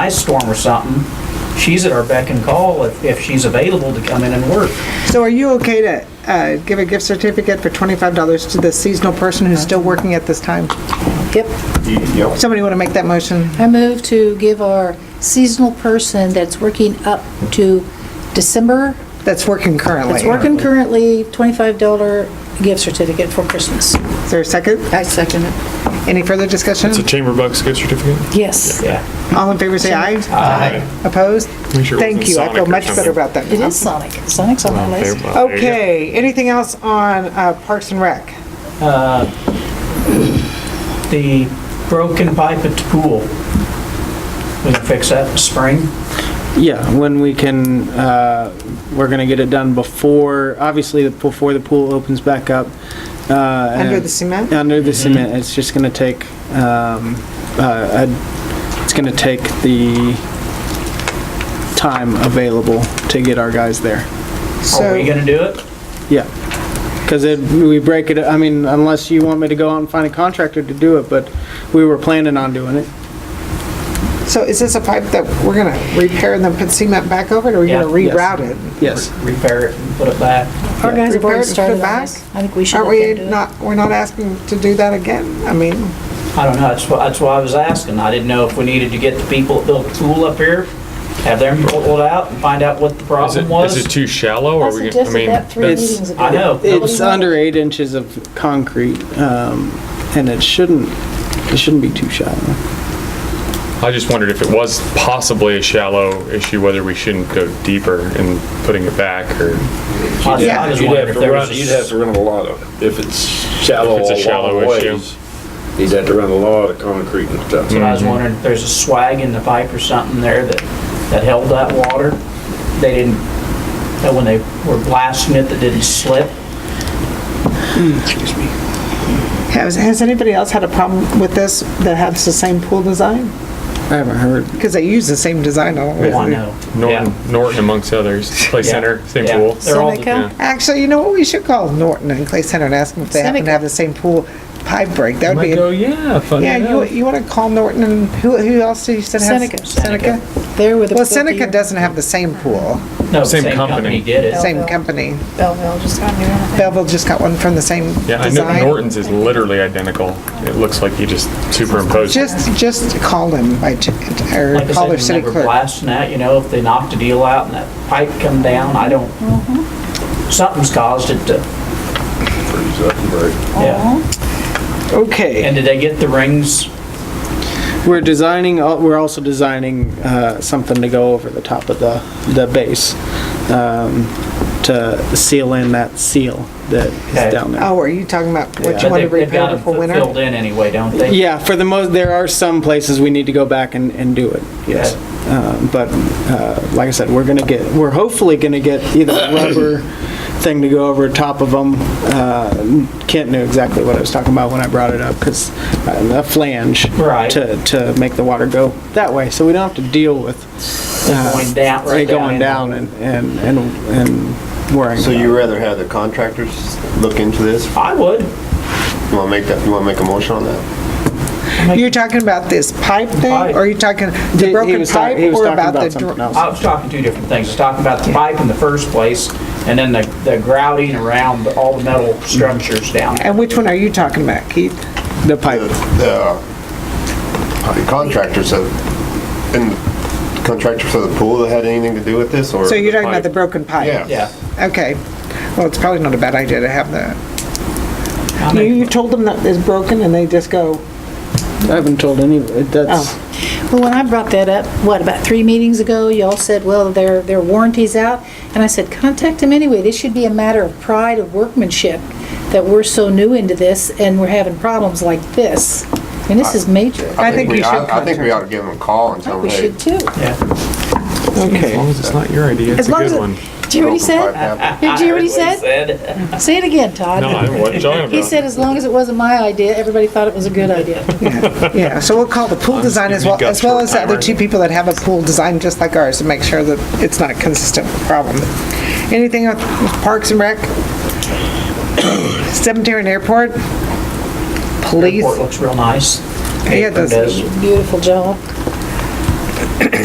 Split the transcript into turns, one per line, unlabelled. ice storm or something, she's at our beck and call if, if she's available to come in and work.
So are you okay to uh, give a gift certificate for $25 to the seasonal person who's still working at this time?
Yep.
Yep.
Somebody want to make that motion?
I move to give our seasonal person that's working up to December,
That's working currently.
that's working currently, $25 gift certificate for Christmas.
Is there a second?
I second it.
Any further discussion?
It's a chamber bucks gift certificate?
Yes.
Yeah.
All in favor, say aye.
Aye.
Opposed?
Make sure it
Uh, Thank
wasn't
you, I
Sonic
feel
or
much
something.
better about that.
It is Sonic. Sonic's on my list.
Okay, anything else on uh, Parks and Rec?
The broken pipe at the pool, we can fix that in spring.
Yeah, when we can, uh, we're gonna get it done before, obviously, before the pool opens back up. uh,
Under
and-
the cement?
Under the cement, it's just gonna take, um, uh, a- it's gonna take the time available to get our guys there.
Are
So
Oh, we gonna do it?
Yeah, because it, we break it, I mean, unless you want me to go out and find a contractor to do it, but we were planning on doing it.
So is this a pipe that we're going to repair and then put cement back over it, or are we going to
Yeah.
reroute it?
Yes.
Repair it and put it back.
Our guys have
Prepare
already
to put
started on
back?
this. I think we should
Aren't
look
we
into it.
not, we're not asking to do that again? I mean,
I don't know, that's why, that's why I was asking. I didn't know if we needed to get the people that built the pool up here, have them pull it out and find out what the
Is it,
problem was.
is it too shallow?
I
Are we, I
suggested
mean,
that three
that's-
meetings ago.
I know.
It's under eight inches of concrete, um, and it shouldn't, it shouldn't be too shallow.
I just wondered if it was possibly a shallow issue, whether we shouldn't go deeper in putting it back or
I was- I was
You'd
wondering
have
if
to
there
run,
was.
you'd have to run a lot of, if it's shallow
If it's a
a
shallow
long
issue. Hmm.
ways, you'd have to run a lot of concrete and stuff.
But I was wondering if there's a swag in the pipe or something there that, that held that water. They didn't, that when they were blasting it, that didn't slip. Oh,
has, has anybody else had a problem with this that has the same pool design?
I haven't heard.
Because they use the same design all
Oh, I
over.
know.
Norton,
Yeah.
Norton amongst others. Play
Yeah.
center, same
Yeah.
pool.
They're all,
Seneca?
Yeah.
Actually, you know what, we should call Norton and Clay Center and ask them if they happen to
Seneca.
have the same pool pipe break. That would be, a-
yeah, funny
yeah, you, you want to call Norton and who, who else did you said has?
Seneca.
Seneca?
There with the.
Well, Seneca doesn't have the same pool,
no, the
Same
same company
company.
did it.
same company.
Belleville just got new. one.
Belleville just got one from the same
Yeah, I know
design.
Norton's is literally identical. It looks like you just superimposed. it.
Just, just call them by, ch- or
Like I
call
said,
their
when they
city
were
clerk.
blasting that, you know, if they knocked a deal out and that pipe come down, I don't, something's caused it to,
Freeze up and break.
yeah.
Okay,
And did they get the rings?
We're designing, al- we're also designing uh, something to go over the top of the, the base um, to seal in that seal that
Okay.
is down there.
oh, are you talking about what
But
you want to
they've- they've got
repair
them
before winter?
Filled in anyway, don't they?
Yeah, for the most, there are some places we need to go back and, and do it, yes.
Okay.
Uh, But uh, like I said, we're gonna get, we're hopefully gonna get either a rubber thing to go over top of them. Kent knew exactly what I was talking about when I brought it up, because a flange.
Right.
To, to make the water go that way, so we don't have to deal with. uh,
Going down, right
it
down.
Going
in.
down and, and, and and worrying.
So
about
you
it.
rather have the contractors look into this?
I would.
You wanna make that, you wanna make a motion on that?
You're talking about this pipe thing,
Pipe.
or are you talking
He-
the
he
broken
was talk-
pipe,
he was
or
talking
about the?
something
dr-
else.
I was talking two different things. I was talking about the pipe in the first place, and then the, the grouting around the- all the metal structures down.
And which one are you talking about, Keith?
Uh,
The pipe.
The uh, the contractors have, and the contractor for the pool that had anything to do with this or?
So you're talking about the
pipe?
broken pipe?
Yeah.
Yeah.
Okay, well, it's probably not a bad idea to have that.
I
You, you
mean,
told them that it's broken and they just go,
I haven't told any,
Oh.
that's,
Well, when I brought that up, what, about three meetings ago, y'all said, well, their, their warranty's out. And I said, contact them anyway. This should be a matter of pride of workmanship that we're so new into this and we're having problems like this. And this is major.
I think
we-
you should
I think we ought to give them a call and
I
tell
think
them,
we
hey.
should too.
As long
okay.
as it's not your idea, it's
As
a
long as,
good
it-
one.
did you hear what he
broken pipe
said?
happened.
Did you hear what he
I heard
said? Say it again, Todd.
No, I don't know what you're talking about.
He said, as long as it wasn't my idea, everybody thought it was a good idea.
Yeah, so we'll call the pool design as
giving you
well, as
guts
well
for a
as the other
timer.
two people that have a pool design just like ours to make sure that it's not a consistent problem. Anything with Parks and Rec? Cemetery and Airport? Police?
Airport looks real nice.
Yeah, it does.
Does.
Beautiful job.